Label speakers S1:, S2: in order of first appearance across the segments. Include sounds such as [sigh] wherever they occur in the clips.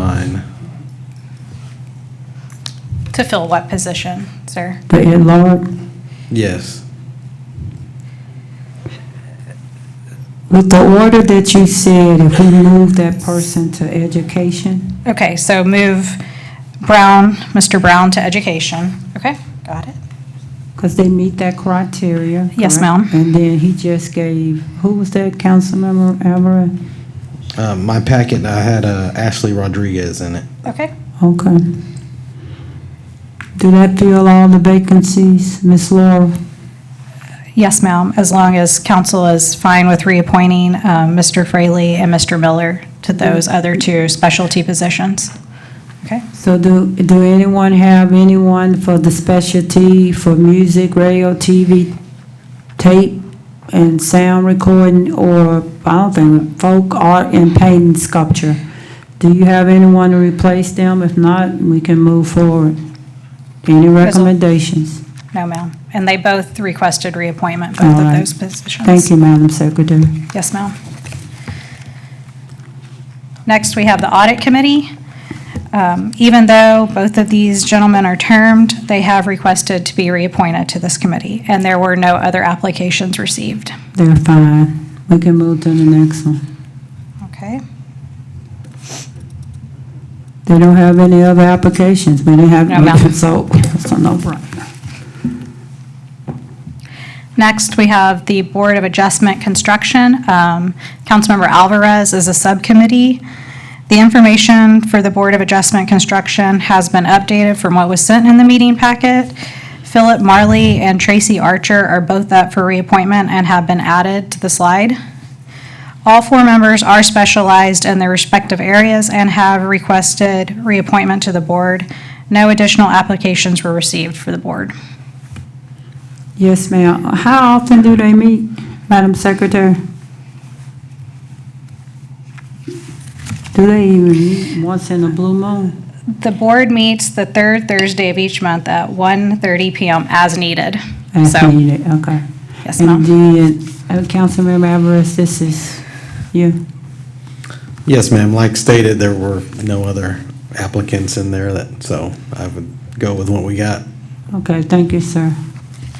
S1: Mine.
S2: To fill what position, sir?
S3: The in-law,
S1: Yes.
S3: with the order that you said, if we move that person to education,
S2: Okay, so move Brown, Mr. Brown to education. Okay, got it.
S3: because they meet that criteria.
S2: Yes,
S3: correct?
S2: ma'am.
S3: And then he just gave, who was that, Councilmember Alvarez?
S1: Uh, my packet, I had uh, Ashley Rodriguez in it.
S2: Okay,
S3: Okay. Do that fill all the vacancies, Ms. Laura?
S2: yes, ma'am, as long as council is fine with reappointing um, Mr. Fraley and Mr. Miller to those other two specialty positions. Okay,
S3: So do, do anyone have anyone for the specialty for music, radio, TV, tape, and sound recording, or, I don't think, folk art and painting sculpture? Do you have anyone to replace them? If not, we can move forward. Any recommendations?
S2: no, ma'am. And they both requested reappointment, both
S3: All
S2: of
S3: right.
S2: those positions.
S3: Thank you, Madam Secretary.
S2: Yes, ma'am. Next, we have the Audit Committee. Um, Even though both of these gentlemen are termed, they have requested to be reappointed to this committee, and there were no other applications received.
S3: They're fine. We can move to the next one.
S2: Okay.
S3: They don't have any other applications. We didn't have,
S2: No, ma'am.
S3: [laughs] so, so no problem.
S2: Next, we have the Board of Adjustment Construction. Um, Councilmember Alvarez is a subcommittee. The information for the Board of Adjustment Construction has been updated from what was sent in the meeting packet. Philip Marley and Tracy Archer are both up for reappointment and have been added to the slide. All four members are specialized in their respective areas and have requested reappointment to the board. No additional applications were received for the board.
S3: Yes, ma'am. How often do they meet, Madam Secretary? Do they even meet once in a blue moon?
S2: The board meets the third Thursday of each month at 1:30 PM as needed.
S3: As
S2: So,
S3: needed, okay.
S2: yes,
S3: And
S2: ma'am.
S3: then, uh, Councilmember Alvarez, this is you.
S1: Yes, ma'am. Like stated, there were no other applicants in there that, so I would go with what we got.
S3: Okay, thank you, sir.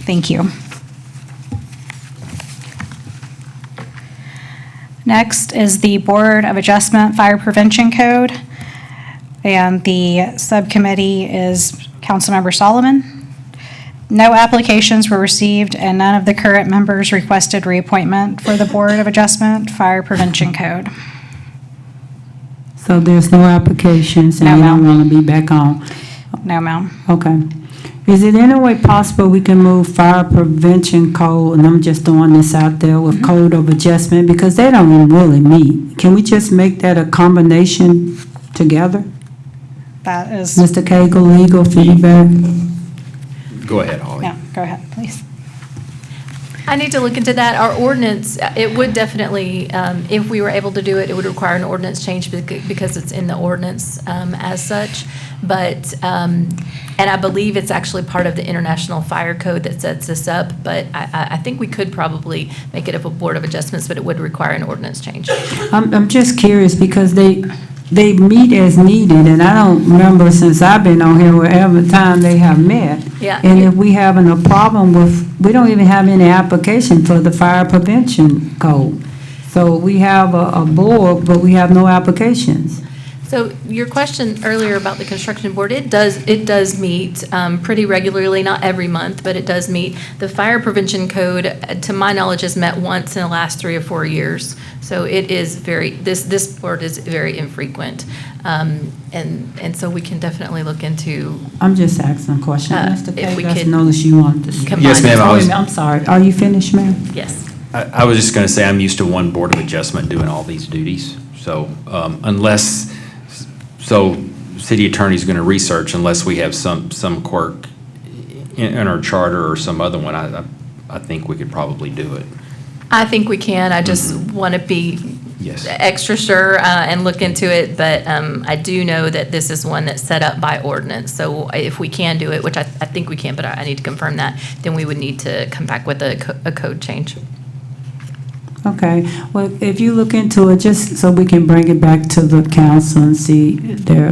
S2: Thank you. Next is the Board of Adjustment Fire Prevention Code. And the subcommittee is Councilmember Solomon. No applications were received and none of the current members requested reappointment for the Board of Adjustment Fire Prevention Code.
S3: So there's no applications and
S2: No,
S3: you don't
S2: ma'am.
S3: want to be back on?
S2: No, ma'am.
S3: Okay. Is it any way possible we can move fire prevention code, and I'm just throwing this out there, with code of adjustment, because they don't even really meet. Can we just make that a combination together?
S2: That is,
S3: Mr. Cagle, legal feedback?
S4: Go ahead, Holly.
S2: no, go ahead, please.
S5: I need to look into that. Our ordinance, it would definitely, um, if we were able to do it, it would require an ordinance change bec- because it's in the ordinance um, as such. But, um, and I believe it's actually part of the International Fire Code that sets this up. But I- I I think we could probably make it up a Board of Adjustments, but it would require an ordinance change.
S3: I'm, I'm just curious, because they, they meet as needed, and I don't remember since I've been on here, wherever time they have met.
S5: Yeah.
S3: And if we having a problem with, we don't even have any application for the fire prevention code. So we have a, a board, but we have no applications.
S5: So your question earlier about the construction board, it does, it does meet um, pretty regularly, not every month, but it does meet. The fire prevention code, uh, to my knowledge, has met once in the last three or four years. So it is very, this, this board is very infrequent. Um, And, and so we can definitely look into,
S3: I'm just asking a question.
S5: Uh,
S3: Mr.
S5: if we
S3: Page, I
S5: could
S3: noticed you wanted to. speak.
S5: Combine Yes,
S4: ma'am, I
S3: Oh, wait a
S4: was-
S3: minute, I'm sorry. Are you finished, ma'am?
S5: yes.
S4: I, I was just going to say, I'm used to one Board of Adjustment doing all these duties. So um, unless, so city attorney's going to research unless we have some, some quirk in, in our charter or some other one, I, I- I think we could probably do it.
S5: I think we can. I just want to be
S4: Yes.
S5: extra sure uh, and look into it, but um, I do know that this is one that's set up by ordinance. So if we can do it, which I I think we can, but I I need to confirm that, then we would need to come back with a co- a code change.
S3: Okay, well, if you look into it, just so we can bring it back to the council and see if there